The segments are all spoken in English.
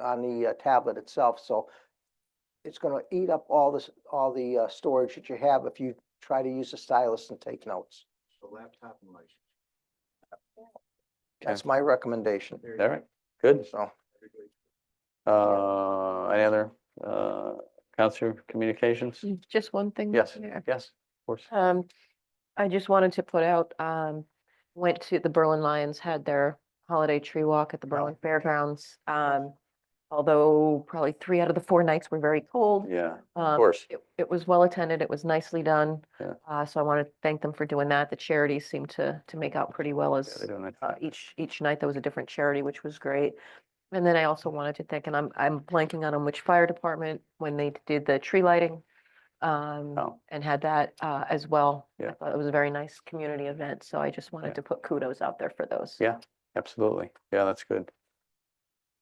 on the uh, tablet itself, so it's gonna eat up all this, all the uh, storage that you have if you try to use the stylus and take notes. the laptop and license. That's my recommendation, There you All go. right, good. so. Everybody- Uh, any other, uh, Counselor Communications? Mm, Just one thing. Yes, Mayor. yes, of course. Um, I just wanted to put out, um, went to, the Berlin Lions had their holiday tree walk at the Berlin Fairgrounds. Um, although probably three out of the four nights were very cold. Yeah, of Um, course. it, it was well attended. It was nicely done. Yeah. Uh, so I want to thank them for doing that. The charities seemed to, to make out pretty well Yeah, as, they're doing it. uh, each, each night there was a different charity, which was great. And then I also wanted to thank, and I'm, I'm blanking on 'em, which fire department, when they did the tree lighting. Um, Oh, and had that uh as well. I Yeah. thought It was a very nice community event, so I just Yeah. wanted to put kudos out there for those. Yeah. absolutely. Yeah, that's good.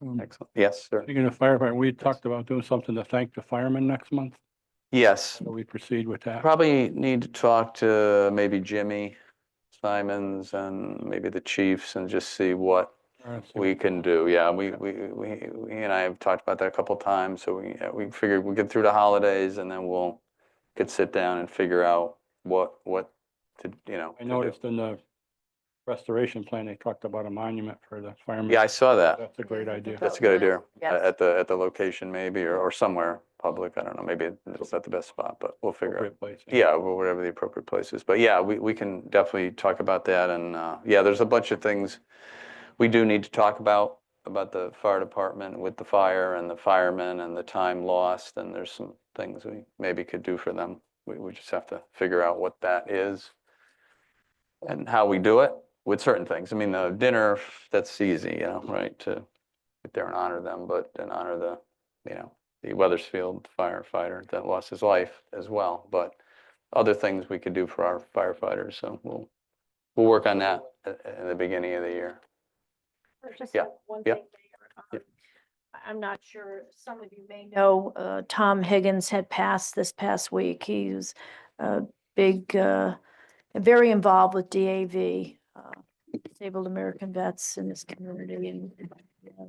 Um, Excellent. Yes, sir. Speaking of firefighter, we had talked about doing something to thank the firemen next month. Yes, So we proceed with that. probably need to talk to maybe Jimmy Simons and maybe the chiefs and just see what Or see we can do. Yeah, we, we, we, we and I have talked about that a couple times. So we, yeah, we figured we'll get through the holidays and then we'll could sit down and figure out what, what to, you know. to I do. noticed in the restoration plan, they talked about a monument for the firemen. Yeah, I saw that. That's a great idea. That's a That good was idea. nice. A- Yes. At the, at the location maybe, or, or somewhere public, I don't know, maybe it's not the best spot, but we'll figure out. Appropriate place. Yeah, wh- whatever the appropriate place is. But yeah, we, we can definitely talk about that and, uh, yeah, there's a bunch of things we do need to talk about, about the fire department with the fire and the firemen and the time lost, and there's some things we maybe could do for them. We, we just have to figure out what that is and how we do it with certain things. I mean, the dinner, that's easy, you know, right, to get there and honor them, but and honor the, you know, the Weathersfield firefighter that lost his life as well, but other things we could do for our firefighters, so we'll, we'll work on that at, at the beginning of the year. There's just Yeah, one yeah, thing yeah. there. um, I- I'm not sure, some of you may know, uh, Tom Higgins had passed this past week. He was a big, uh, very involved with DAV, uh, Disabled American Vets in this community and uh,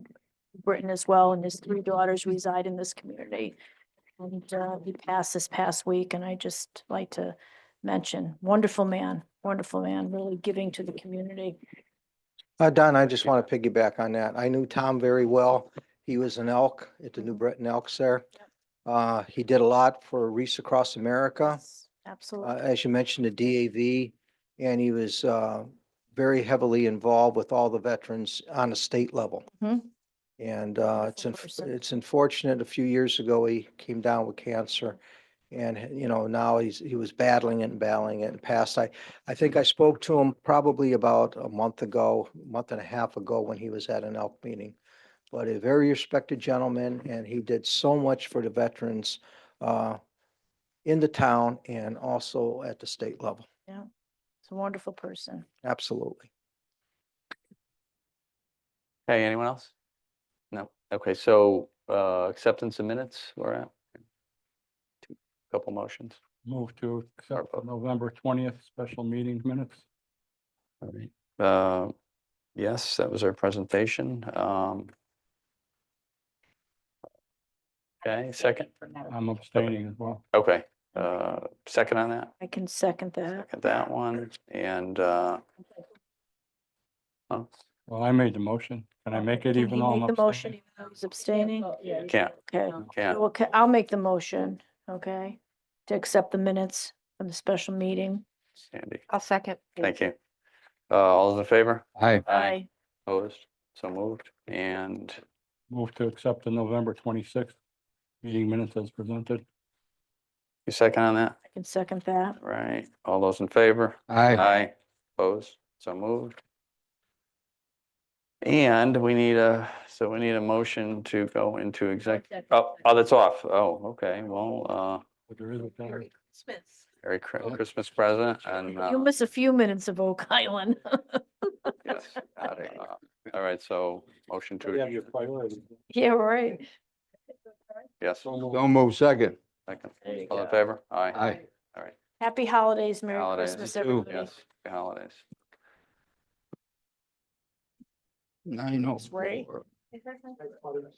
Britain as well, and his three daughters reside in this community. And uh, he passed this past week, and I just like to mention, wonderful man, wonderful man, really giving to the community. Uh, Don, I just want to piggyback on that. I knew Tom very well. He was an elk at the New Breton Elks there. Uh, he did a lot for Reese Across America. Yes, uh, Absolutely. as you mentioned, the DAV, and he was uh, very heavily involved with all the veterans on a state level. Mhm. And uh, it's, Wonderful unf- person. it's unfortunate, a few years ago, he came down with cancer. And, you know, now he's, he was battling it and battling it and passed. I, I think I spoke to him probably about a month ago, month and a half ago, when he was at an elk meeting. But a very respected gentleman, and he did so much for the veterans. uh, in the town and also at the state level. It's a wonderful person. Absolutely. Hey, anyone else? No, okay, so, uh, acceptance of minutes, we're at. Two- Couple motions. Move to accept the Or- November twentieth special meeting minutes. All right. Uh, Yes, that was our presentation. Um, Okay, second, I'm abstaining as well. okay, uh, second on that, I can second that. second that one, and, uh, oh, Well, I made the motion. Can I make it Can even he though I'm make the motion abstaining? even though he's abstaining? can't, Okay. can't, Well, ca- I'll make the motion, okay, to accept the minutes from the special meeting. Sandy, I'll second. thank you. Uh, All those in favor? Aye. Aye. Opposed, so moved, and Move to accept the November twenty-sixth meeting minutes as presented. you second on that? I can second that. Right, all those in favor? Aye. Aye. Opposed, so moved. And we need a, so we need a motion to go into exec, oh, oh, that's off, oh, okay, well, uh, But there is a time. Merry Chri- Christmas present and, You'll uh, miss a few minutes of Oak Island. yes, got it, uh, all right, so motion You have to, your priorities. Yeah, right. yes, So moved. Don't move second. second, There you all in go. favor? Aye, Aye. Happy holidays, Merry Holidays. Christmas, You too. everybody. yes, happy holidays. Nine oh Ray. four.